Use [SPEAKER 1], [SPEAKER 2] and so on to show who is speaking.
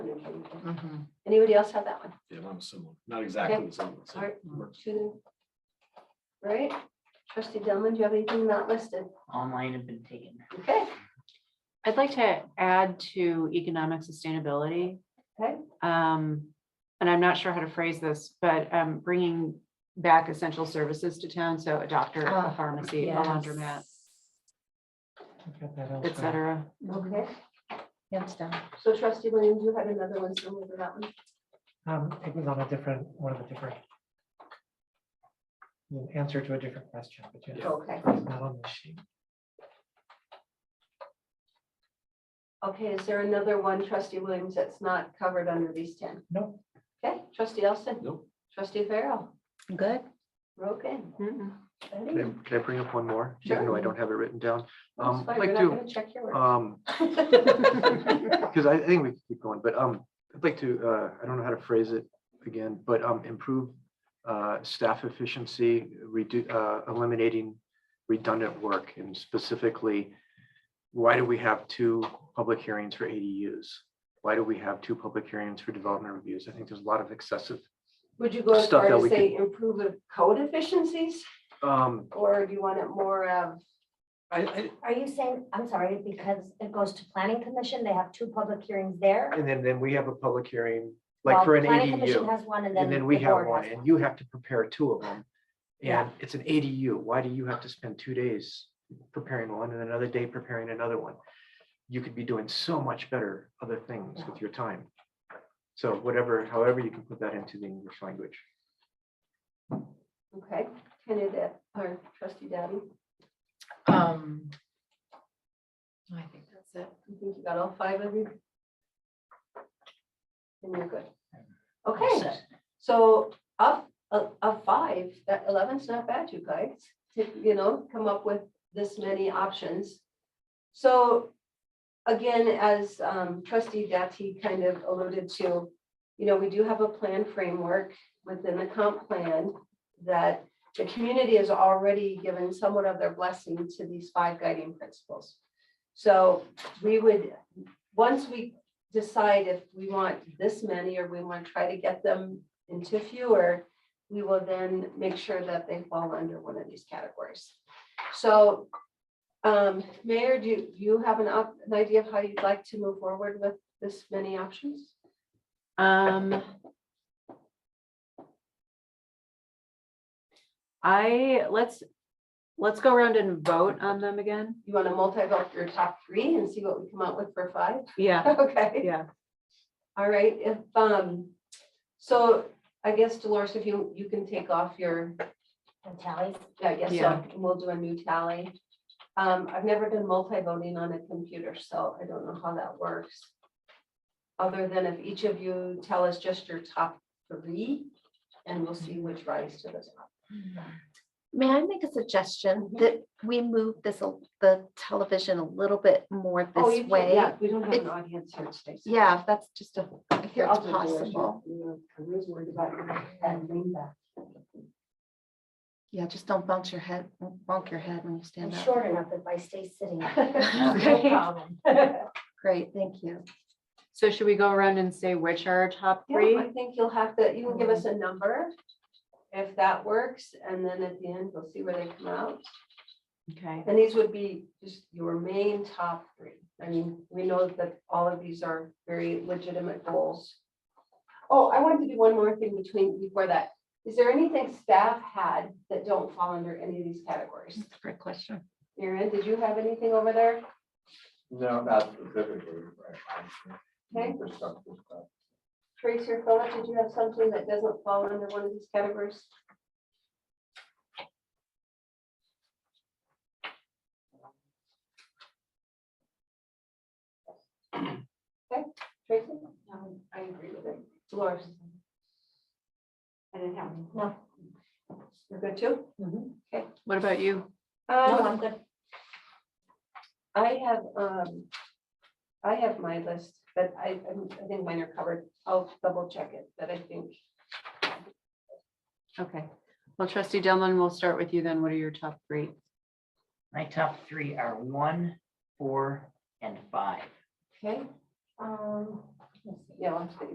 [SPEAKER 1] meeting.
[SPEAKER 2] Mhm.
[SPEAKER 1] Anybody else have that one?
[SPEAKER 3] Yeah, I'm similar, not exactly the same. so
[SPEAKER 1] Alright.
[SPEAKER 3] works.
[SPEAKER 1] Two. Right? Trustee Delman, do you have anything not listed?
[SPEAKER 2] All mine have been taken.
[SPEAKER 1] Okay,
[SPEAKER 4] I'd like to add to economic sustainability.
[SPEAKER 1] Okay.
[SPEAKER 4] Um, and I'm not sure how to phrase this, but um, bringing back essential services to town, so a doctor, a
[SPEAKER 2] Ah,
[SPEAKER 4] pharmacy, a laundromat, et cetera.
[SPEAKER 1] okay.
[SPEAKER 2] Yes, done.
[SPEAKER 1] So trustee Williams, you had another one similar to that one?
[SPEAKER 5] Um, it was on a different, one of the different. an Answer to a different question, but yeah,
[SPEAKER 1] Okay.
[SPEAKER 5] it's not on the sheet.
[SPEAKER 1] Okay, is there another one, trustee Williams, that's not covered under these ten?
[SPEAKER 5] No.
[SPEAKER 1] Okay, trustee Elson?
[SPEAKER 3] Nope.
[SPEAKER 1] Trustee Farrell?
[SPEAKER 2] Good.
[SPEAKER 1] We're okay.
[SPEAKER 4] Mm-mm.
[SPEAKER 1] Ready?
[SPEAKER 6] Can I, can I bring up one more, even though I don't have it written down?
[SPEAKER 1] That's
[SPEAKER 6] Um,
[SPEAKER 1] fine,
[SPEAKER 6] I'd
[SPEAKER 1] we're
[SPEAKER 6] like
[SPEAKER 1] not
[SPEAKER 6] to,
[SPEAKER 1] gonna check your work.
[SPEAKER 6] um, because I I think we can keep going, but, um, I'd like to, uh, I don't know how to phrase it again, but, um, improve, uh, staff efficiency, reduce, uh, eliminating redundant work and specifically, why do we have two public hearings for ADUs? Why do we have two public hearings for development reviews? I think there's a lot of excessive,
[SPEAKER 1] Would you go as
[SPEAKER 6] stuff
[SPEAKER 1] far
[SPEAKER 6] that
[SPEAKER 1] to
[SPEAKER 6] we
[SPEAKER 1] say improve the code efficiencies,
[SPEAKER 6] um,
[SPEAKER 1] or do you want it more of,
[SPEAKER 6] I, I,
[SPEAKER 7] Are you saying, I'm sorry, because it goes to planning commission, they have two public hearings there?
[SPEAKER 6] and then, then we have a public hearing, like
[SPEAKER 7] while
[SPEAKER 6] for an
[SPEAKER 7] planning commission
[SPEAKER 6] ADU.
[SPEAKER 7] Has one and then.
[SPEAKER 6] And then we
[SPEAKER 7] the
[SPEAKER 6] have
[SPEAKER 7] board
[SPEAKER 6] one,
[SPEAKER 7] has
[SPEAKER 6] and you have to prepare two of them.
[SPEAKER 7] Yeah.
[SPEAKER 6] And it's an ADU. Why do you have to spend two days preparing one and another day preparing another one? You could be doing so much better other things with your time. So whatever, however you can put that into the English language.
[SPEAKER 1] okay, can it, uh, or trustee Daddy?
[SPEAKER 2] Um. I think that's it.
[SPEAKER 1] You think you got all five of you? And you're good.
[SPEAKER 2] All
[SPEAKER 1] Okay,
[SPEAKER 2] set.
[SPEAKER 1] so of, of of five, that eleven's not bad, you guys, to, you know, come up with this many options. So again, as um, trustee Dati kind of alluded to, you know, we do have a plan framework within the comp plan that the community has already given somewhat of their blessing to these five guiding principles. So we would, once we decide if we want this many or we want to try to get them into fewer, we will then make sure that they fall under one of these categories. So, um, Mayor, do you- do you have an up, an idea of how you'd like to move forward with this many options?
[SPEAKER 4] Um. I, let's, let's go around and vote on them again.
[SPEAKER 1] You want to multi-vote your top three and see what we come out with for five?
[SPEAKER 4] Yeah,
[SPEAKER 1] Okay.
[SPEAKER 4] yeah.
[SPEAKER 1] All right, if, um, so I guess Dolores, if you, you can take off your
[SPEAKER 7] one. The tallies.
[SPEAKER 1] I guess so.
[SPEAKER 4] Yeah.
[SPEAKER 1] We'll do a new tally. Um, I've never done multi-voting on a computer, so I don't know how that works. Other than if each of you tell us just your top three, and we'll see which rise to the top.
[SPEAKER 8] May I make a suggestion that we move this, a- the television a little bit more
[SPEAKER 1] Oh, you
[SPEAKER 8] this
[SPEAKER 1] can-
[SPEAKER 8] way?
[SPEAKER 1] yeah, We don't have an
[SPEAKER 8] It's-
[SPEAKER 1] audience here today. so-
[SPEAKER 8] Yeah, if that's just a, if it's
[SPEAKER 1] I'll do it, Dolores.
[SPEAKER 8] possible.
[SPEAKER 1] You know, I was worried about your head being back.
[SPEAKER 8] Yeah, just don't bounce your head, bonk your head when you
[SPEAKER 7] I'm
[SPEAKER 8] stand up.
[SPEAKER 7] short enough if I stay sitting.
[SPEAKER 1] Okay.
[SPEAKER 7] No problem.
[SPEAKER 8] Great, thank you.
[SPEAKER 4] So should we go around and say which are our top three?
[SPEAKER 1] Yeah, I think you'll have to, you can give
[SPEAKER 8] Mm-hmm.
[SPEAKER 1] us a number if that works, and then at the end, we'll see where they come out.
[SPEAKER 4] Okay,
[SPEAKER 1] And these would be just your main top three. I mean, we know that all of these are very legitimate goals. Oh, I wanted to do one more thing between, before that. Is there anything staff had that don't fall under any of these categories?
[SPEAKER 8] That's a great question.
[SPEAKER 1] Erin, did you have anything over there?
[SPEAKER 9] No, not specifically. right.
[SPEAKER 1] Okay.
[SPEAKER 9] Infrastructure stuff.
[SPEAKER 1] Tracy or Philip, did you have something that doesn't fall under one of these categories? Okay, Tracy? Um, I agree with it. Dolores? I didn't have.
[SPEAKER 7] No.
[SPEAKER 1] You're good too?
[SPEAKER 4] what about you?
[SPEAKER 7] No, I'm good.
[SPEAKER 1] Um, I have, um, I have my list, but I, I'm- I think mine are covered. I'll double check it, but I think
[SPEAKER 4] Okay, well, trustee Delman, we'll start with you then. What are your top three?
[SPEAKER 2] My top three are one, four, and five.
[SPEAKER 1] Okay,
[SPEAKER 7] Um,
[SPEAKER 8] you know,